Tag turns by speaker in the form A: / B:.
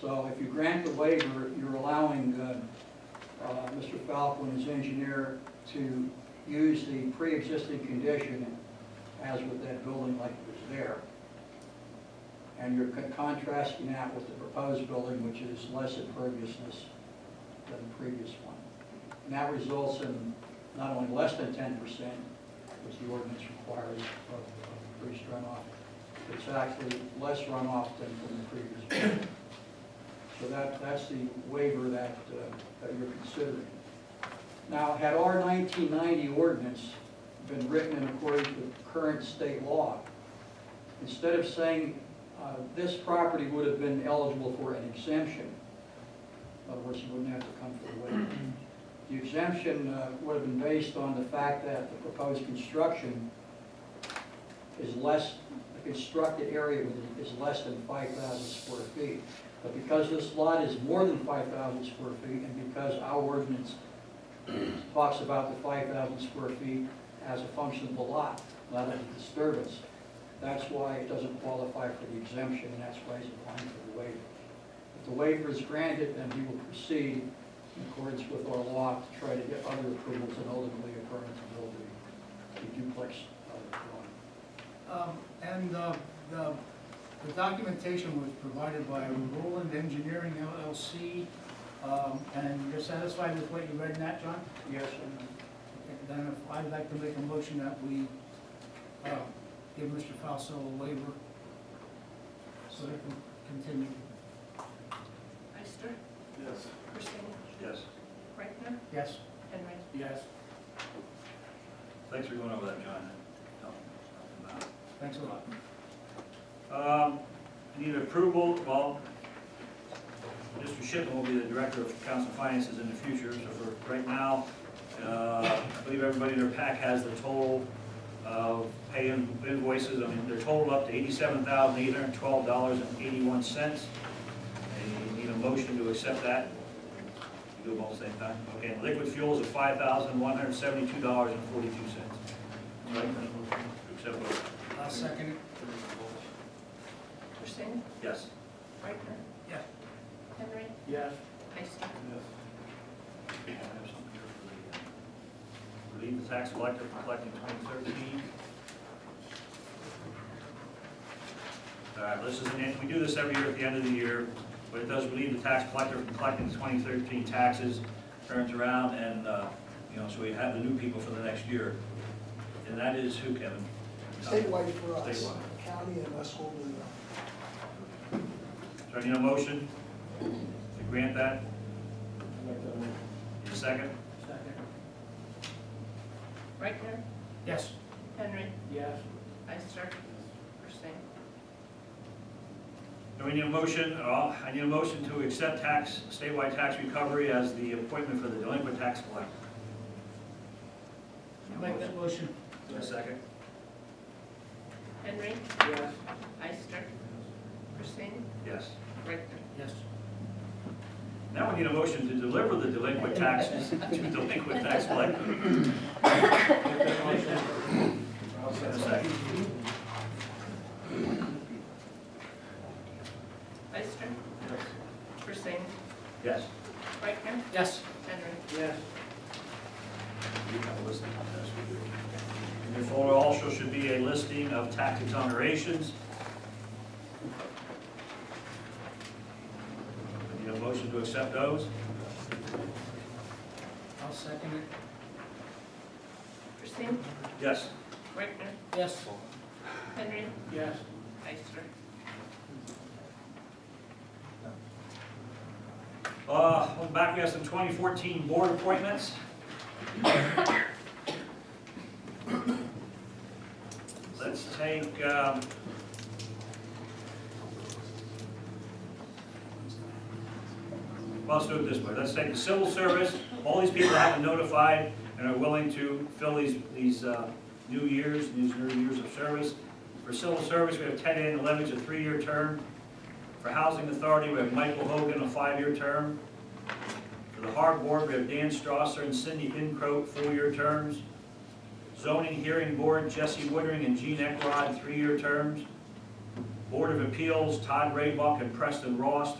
A: So if you grant the waiver, you're allowing uh, uh, Mr. Falco and his engineer to use the pre-existing condition as with that building like it was there. And you're con- contrasting that with the proposed building, which is less imperviousness than the previous one. And that results in not only less than ten percent, which the ordinance requires uh, of of increased runoff, it's actually less runoff than from the previous one. So that, that's the waiver that, uh, that you're considering. Now, had our 1990 ordinance been written in accordance with current state law, instead of saying uh, this property would have been eligible for an exemption, in other words, you wouldn't have to come for the waiver, the exemption uh, would have been based on the fact that the proposed construction is less, the constructed area is less than 5,000 square feet. But because this lot is more than five thousand square feet, and because our ordinance talks about the five thousand square feet as a function of the lot, not as a disturbance, that's why it doesn't qualify for the exemption, and that's why he's applying for the waiver. If the waiver is granted, then he will proceed in accordance with our law to try to get other approvals and ultimately a permit to build the- the duplex. uh, dwelling.
B: Um, And uh, the the documentation was provided by Roland Engineering LLC, um, and you're satisfied with what you read in that, John?
A: Yes, and
B: Okay, Then if- I'd like to make a motion that we uh, give Mr. Falso a waiver so he can continue.
C: Ister,
D: Yes.
C: Christina,
D: Yes.
C: Reichtner,
B: Yes?
C: Henry.
B: Yes.
D: Thanks for going over that, John. Helping
B: Thanks a lot.
D: out. Um, Need approval, well, Mr. Shipman will be the director of council finances in the future, so for right now, uh, I believe everybody in their pack has the total of pay in- invoices, I mean, they're totaled up to eighty-seven thousand eight hundred twelve dollars and eighty-one cents. And you need a motion to accept that. You do them all at the same time? Okay, and liquid fuels of five thousand one hundred seventy-two dollars and forty-two cents. Right, accept both.
B: I'll second it.
C: Christina,
D: Yes.
C: Reichtner.
B: Yeah.
C: Henry,
B: Yes.
C: Ister.
D: I have something here for the, uh, Relieve the tax collector from collecting 2013. All right, this is, and we do this every year at the end of the year, but it does relieve the tax collector from collecting the 2013 taxes, turns around and, uh, you know, so we have the new people for the next year. And that is who, Kevin?
E: Statewide for us,
D: Statewide.
E: county and us will do that.
D: So I need a motion to grant that. Need a second?
B: Second.
C: Reichtner,
B: Yes?
C: Henry,
B: Yes.
C: Ister, Christina.
D: Do we need a motion, uh, I need a motion to accept tax, statewide tax recovery as the appointment for the delinquent tax collector.
B: Make that motion.
D: Is there a second?
C: Henry,
B: Yes.
C: Ister, Christina,
D: Yes.
C: Reichtner.
B: Yes.
D: Now we need a motion to deliver the delinquent taxes to delinquent tax collector. Is there a second?
C: Ister. Christina,
D: Yes.
C: Reichtner,
B: Yes.
C: Henry.
B: Yes.
D: You have a listing of this. In your folder also should be a listing of tax exonerations. We Need a motion to accept those?
B: I'll second it.
C: Christina,
D: Yes.
C: Reichtner,
B: Yes.
C: Henry,
B: Yes.
C: Ister.
D: Uh, well, back, we have some 2014 board appointments. Let's take, um, well, let's do it this way. Let's take the civil service, all these people have been notified and are willing to fill these, these uh, new years, these new years of service. For civil service, we have Ted Ann Levens, a three-year term. For Housing Authority, we have Michael Hogan, a five-year term. For the Harbor Board, we have Dan Strasser and Cindy Pincroat, four-year terms. Zoning Hearing Board, Jesse Woodring and Gene Eckrod, three-year terms. Board of Appeals, Todd Raybach and Preston Ross,